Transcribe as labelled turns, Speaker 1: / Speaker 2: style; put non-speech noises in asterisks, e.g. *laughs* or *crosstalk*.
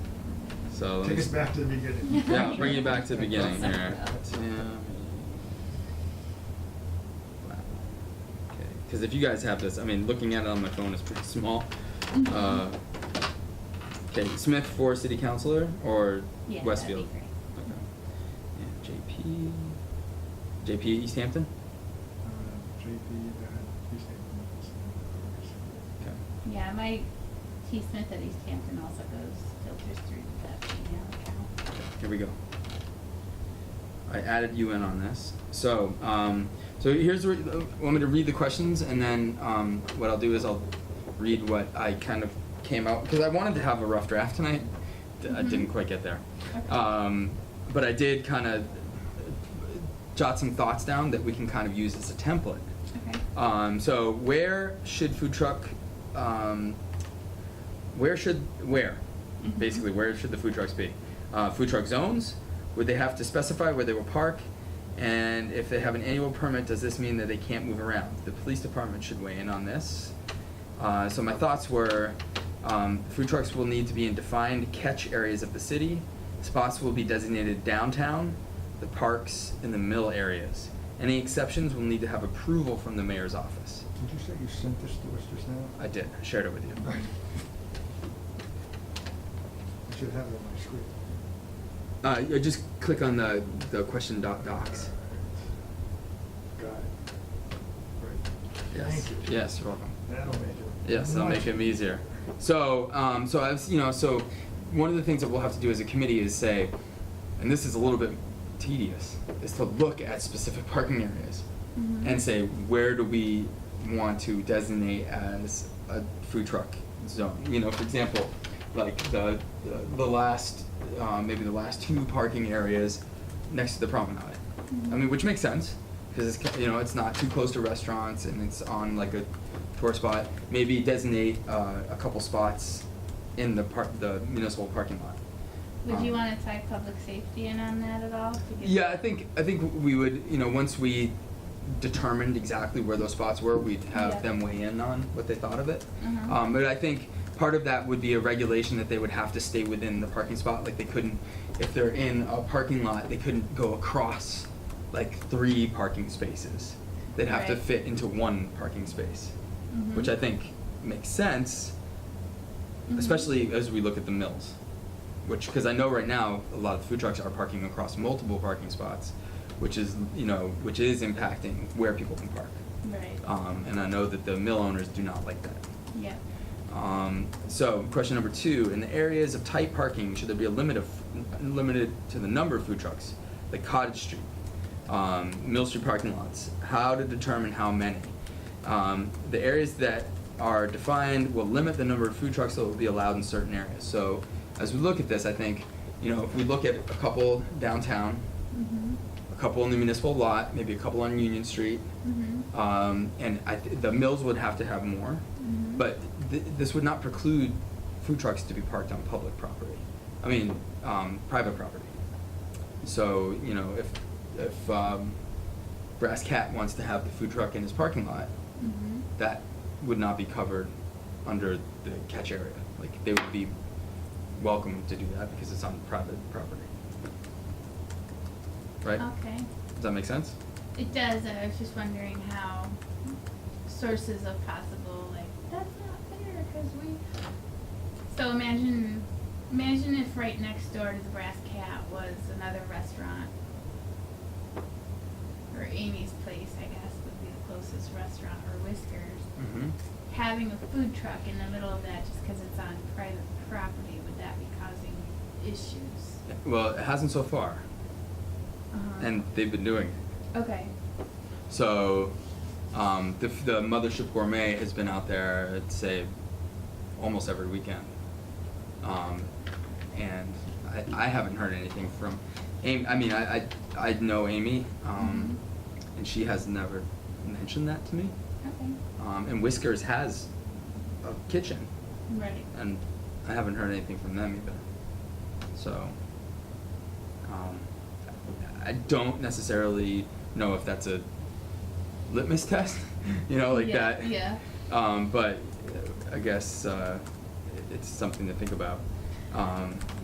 Speaker 1: So let me
Speaker 2: Take us
Speaker 1: s-
Speaker 2: back to the beginning.
Speaker 1: *laughs* Yeah, bring you back to the beginning here. Tim. Because if you guys have this, I mean, looking at it on my phone is pretty small.
Speaker 3: Mm-hmm.
Speaker 1: Uh, okay, Smith for city councilor or
Speaker 3: Yeah, that'd be
Speaker 1: Westfield?
Speaker 3: great.
Speaker 1: Okay. And JP. JP East Hampton?
Speaker 2: Uh, JP, that, East Hampton, that's in
Speaker 1: Okay.
Speaker 3: Yeah, my T Smith at East Hampton also goes, filters through that email account.
Speaker 1: Okay, Here we go. I added you in on this. So, um, so here's where, want me to read the questions, and then um, what I'll do is I'll read what I kind of came out because I wanted to have a rough draft tonight. D- I
Speaker 3: Mhm.
Speaker 1: didn't quite get there,
Speaker 3: Okay.
Speaker 1: um, but I did kind of jot some thoughts down that we can kind of use as a template.
Speaker 3: Okay.
Speaker 1: Um, so where should food truck, um, where should, where?
Speaker 3: Mhm.
Speaker 1: Basically, where should the food trucks be? Uh, food truck zones, would they have to specify where they will park? And if they have an annual permit, does this mean that they can't move around? The police department should weigh in on this. Uh, so my thoughts were, um, food trucks will need to be in defined catch areas of the city. Spots will be designated downtown, the parks, and the mill areas. Any exceptions will need to have approval from the mayor's office.
Speaker 2: Did you say you sent this to us just now?
Speaker 1: I did, I shared it with you.
Speaker 2: I should have it on my screen.
Speaker 1: Uh, you just click on the, the question doc docs.
Speaker 2: Got it. Right.
Speaker 1: Yes,
Speaker 2: Thank you.
Speaker 1: yes, you're welcome.
Speaker 2: That'll make it.
Speaker 1: Yes, that'll make
Speaker 2: much
Speaker 1: it easier. So, um, so I've, you know, so one of the things that we'll have to do as a committee is say, and this is a little bit tedious, is to look at specific parking areas
Speaker 3: Mhm.
Speaker 1: and say, where do we want to designate as a food truck zone? You know, for example, like the, the, the last, uh, maybe the last two parking areas next to the promenade. I
Speaker 3: Mhm.
Speaker 1: mean, which makes sense, because it's, ki- you know, it's not too close to restaurants and it's on like a tour spot. Maybe designate, uh, a couple spots in the park, the municipal parking lot.
Speaker 3: Would you
Speaker 1: Um,
Speaker 3: wanna tie public safety in on that at all? to give-
Speaker 1: yeah, I think I think we would, you know, once we determined exactly where those spots were, we'd have
Speaker 3: Yeah.
Speaker 1: them weigh in on what they thought of it.
Speaker 3: Uh-huh.
Speaker 1: Um, but I think part of that would be a regulation that they would have to stay within the parking spot. Like they couldn't, if they're in a parking lot, they couldn't go across like three parking spaces. They'd have to
Speaker 3: Right.
Speaker 1: fit into one parking space,
Speaker 3: Mhm.
Speaker 1: which I think makes sense,
Speaker 3: Mhm.
Speaker 1: especially as we look at the mills. Which, because I know right now, a lot of food trucks are parking across multiple parking spots, which is, you know, which is impacting where people can park.
Speaker 3: Right,
Speaker 1: Um, and I know that the mill owners do not like that.
Speaker 3: yeah.
Speaker 1: Um, so, question number two: In the areas of tight parking, should there be a limit of limited to the number of food trucks, like Cottage Street, um, Mill Street parking lots? How to determine how many? Um, the areas that are defined will limit the number of food trucks that will be allowed in certain areas. So, as we look at this, I think, you know, if we look at a couple downtown,
Speaker 3: Mhm.
Speaker 1: a couple in the municipal lot, maybe a couple on Union Street,
Speaker 3: Mhm.
Speaker 1: um, and I th- the mills would have to have more.
Speaker 3: Mhm.
Speaker 1: But th- this would not preclude food trucks to be parked on public property. I mean, um, private property. So you know, if if um, Brass Cat wants to have the food truck in his parking lot,
Speaker 3: Mhm.
Speaker 1: that would not be covered under the catch area. Like they would be welcome to do that because it's on private property. Right?
Speaker 3: Okay.
Speaker 1: Does that make sense?
Speaker 3: It does, and I was just wondering how sources of possible like that's not fair because we. So imagine, imagine if right next door to the Brass Cat was another restaurant, or Amy's Place, I guess would be the closest restaurant, or Whiskers.
Speaker 1: Mm-hmm.
Speaker 3: Having a food truck in the middle of that just because it's on private property would that be causing issues?
Speaker 1: Well, it hasn't so far,
Speaker 3: Uh-huh.
Speaker 1: and they've been doing it.
Speaker 3: okay.
Speaker 1: So, um, the, the Mothership Gourmet has been out there, I'd say, almost every weekend. Um, and I, I haven't heard anything from Amy. I mean, I, I, I know Amy, um, and she has never mentioned that to me.
Speaker 3: Okay.
Speaker 1: Um, and Whiskers has a kitchen,
Speaker 3: Right.
Speaker 1: and I haven't heard anything from them either. So, um, I don't necessarily know if that's a litmus *laughs* test, you know, like
Speaker 3: Yeah,
Speaker 1: that.
Speaker 3: yeah.
Speaker 1: Um, but uh, I guess uh, it- it's something to think about. Um,